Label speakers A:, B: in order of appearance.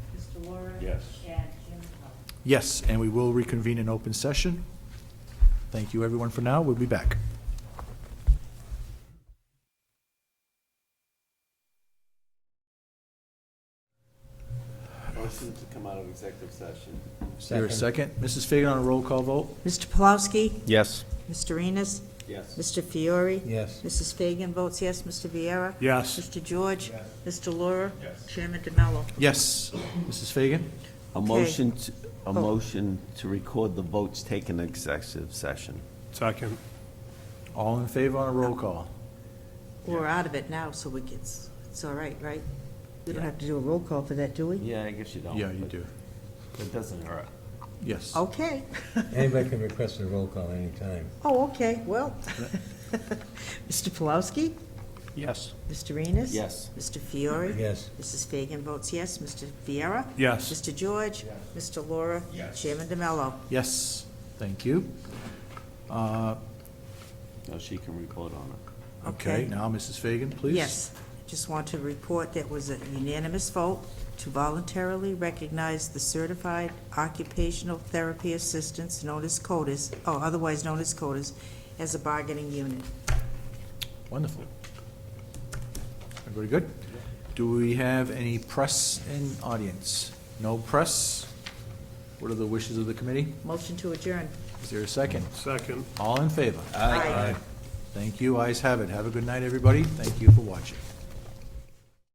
A: Yes.
B: and Jim Cohen.
C: Yes, and we will reconvene in open session. Thank you, everyone, for now. We'll be back.
D: Motion to come out of executive session.
C: Here a second. Mrs. Fagan on a roll call vote?
E: Mr. Polowski?
F: Yes.
E: Mr. Enos?
D: Yes.
E: Mr. Fiore?
F: Yes.
E: Mrs. Fagan votes yes. Mr. Viera?
A: Yes.
E: Mr. George? Mr. Laura?
A: Yes.
E: Chairman DeMello?
C: Yes. Mrs. Fagan?
D: A
E: Okay.
D: motion, to- a
E: Oh.
D: motion to record the votes taken in executive session.
A: Second.
C: All in favor on a roll call?
E: We're out of it now, so we can, it's all right, right? We don't have to do a roll call for that, do we?
D: Yeah, I guess you don't.
C: Yeah, you
D: but
C: do.
D: It doesn't hurt.
C: Yes.
E: Okay.
F: Anybody can request a roll call anytime.
E: Oh, okay, well. Mr. Polowski?
A: Yes.
E: Mr. Enos?
D: Yes.
E: Mr. Fiore?
F: Yes.
E: Mrs. Fagan votes yes. Mr. Viera?
A: Yes.
E: Mr. George? Mr. Laura?
A: Yes.
E: Chairman DeMello?
C: Yes, thank you. Uh,
D: No, she can record on it.
C: Okay,
E: Okay.
C: now, Mrs. Fagan, please.
E: Yes, just want to report that was a unanimous vote to voluntarily recognize the certified occupational therapy assistants known as CODIS, or otherwise known as CODIS, as a bargaining unit.
C: Wonderful. Everybody good? Do we have any press in audience? No press? What are the wishes of the committee?
E: Motion to adjourn.
C: Is there a second?
A: Second.
C: All in favor?
E: Aye.
C: Thank you, ayes have it. Have a good night, everybody. Thank you for watching.